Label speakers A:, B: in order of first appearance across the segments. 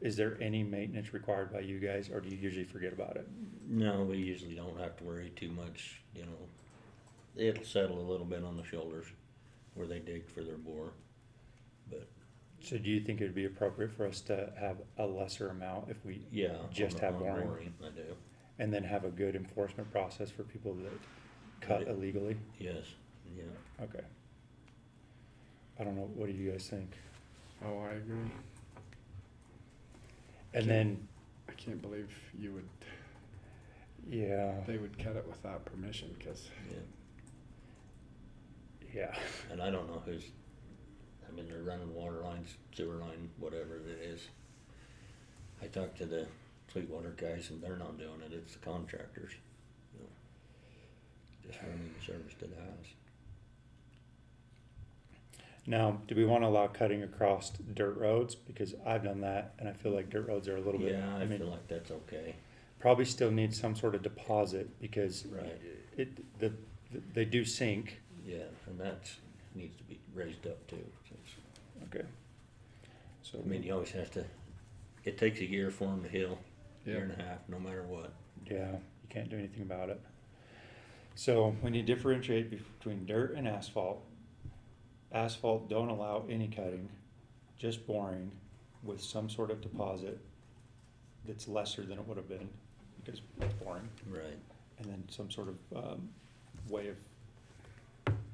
A: Is there any maintenance required by you guys, or do you usually forget about it?
B: No, we usually don't have to worry too much, you know. It'll settle a little bit on the shoulders where they dig for their bore. But
A: So do you think it'd be appropriate for us to have a lesser amount if we,
B: yeah. on
A: Just
B: the-
A: have
B: on
A: boring.
B: boring, I do,
A: and then have a good enforcement process for people that cut
B: Right.
A: illegally?
B: yes, yeah.
A: Okay. I don't know, what do you guys think?
C: Oh, I agree.
A: And then,
C: I can't believe you would,
A: yeah,
C: they would cut it without permission, cause
B: Yeah,
A: yeah,
B: and I don't know who's, I mean, they're running water lines, sewer line, whatever it is. I talked to the Sweetwater guys and they're not doing it, it's the contractors, you know. Just running the service to the house.
A: Now, do we want to allow cutting across dirt roads? Because I've done that, and I feel like dirt roads are a little bit.
B: Yeah, I
A: mean,
B: feel like that's okay,
A: probably still need some sort of deposit because
B: Right.
A: it the they do sink.
B: yeah, and that's, needs to be raised up too, since
A: Okay. So
B: I mean, you always have to. It takes a year for them to heal, year
C: yeah,
B: and a half, no matter what.
A: yeah, you can't do anything about it. So when you differentiate between dirt and asphalt, asphalt don't allow any cutting, just boring with some sort of deposit that's lesser than it would have been because it's boring.
B: Right.
A: and then some sort of um, way of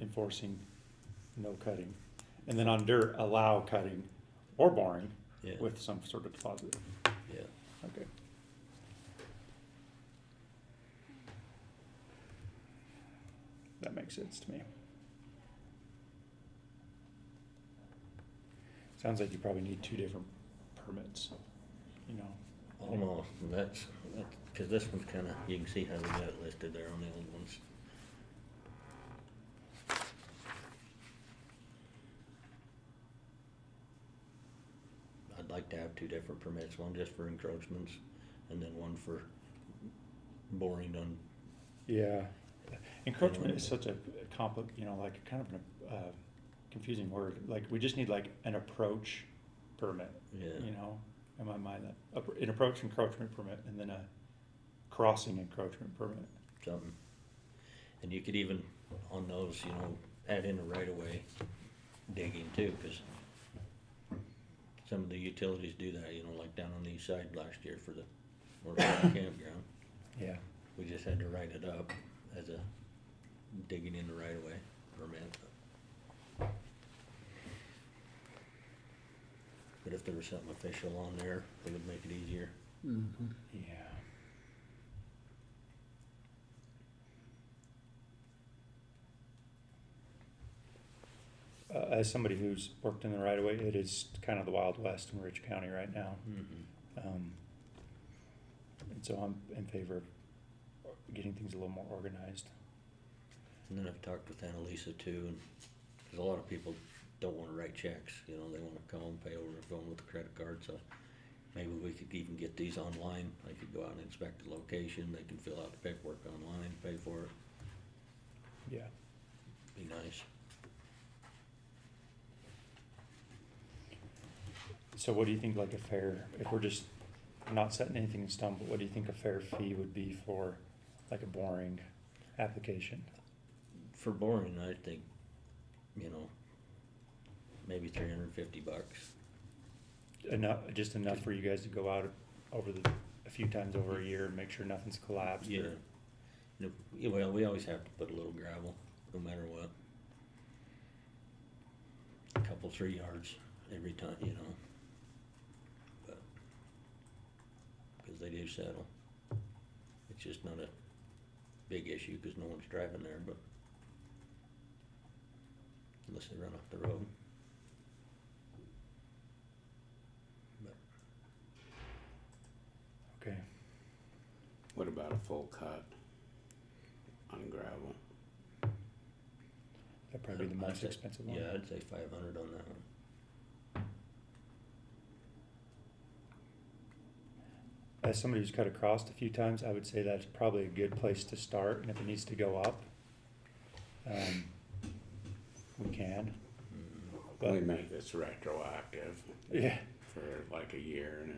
A: enforcing no cutting. And then on dirt, allow cutting or boring
B: Yeah.
A: with some sort of deposit.
B: yeah.
A: Okay. That makes sense to me. Sounds like you probably need two different permits, you know?
B: Almost. and That's because this one's kind of. You can see how we got it listed there on the old ones. I'd like to have two different permits, one just for encroachments, and then one for boring done.
A: Yeah, encroachment is such a compli, you know, like kind of an, uh, confusing word. Like we just need like an approach permit,
B: Yeah.
A: you know, in my mind, that appro- an approach encroachment permit and then a crossing encroachment permit.
B: something. And you could even, on those, you know, add in a right of way digging too, cause some of the utilities do that, you know, like down on the east side last year for the North Platte campground.
A: Yeah.
B: We just had to write it up as a digging in the right of way permit. But if there was something official on there, it would make it easier.
A: Yeah. Uh, as somebody who's worked in the right of way, it is kind of the wild west in Rich County right now. Um, and so I'm in favor of getting things a little more organized.
B: And then I've talked with Annalisa too, and, cause a lot of people don't wanna write checks, you know, they wanna come and pay over the phone with a credit card, so maybe we could even get these online, they could go out and inspect the location, they can fill out the paperwork online, pay for it,
A: Yeah.
B: be nice.
A: So what do you think like a fair, if we're just not setting anything in stone, but what do you think a fair fee would be for like a boring application?
B: For boring, I think, you know, maybe three hundred and fifty bucks.
A: Enough, just enough for you guys to go out over the, a few times over a year and make sure nothing's collapsed
B: Yeah.
A: or,
B: No, yeah, well, we always have to put a little gravel, no matter what. A Couple, three yards every time, you know. But, cause they do settle. It's just not a big issue, cause no one's driving there, but. Unless they run off the road.
A: okay.
D: What about a full cut on gravel?
A: That'd probably be the
B: I'd
A: most
B: say-
A: expensive one.
B: Yeah, I'd say five hundred on that one.
A: As somebody who's cut across a few times, I would say that's probably a good place to start, and if it needs to go up, um, we can.
D: We
A: But,
B: Mm-hmm.
D: make this retroactive
A: yeah.
D: for like a year and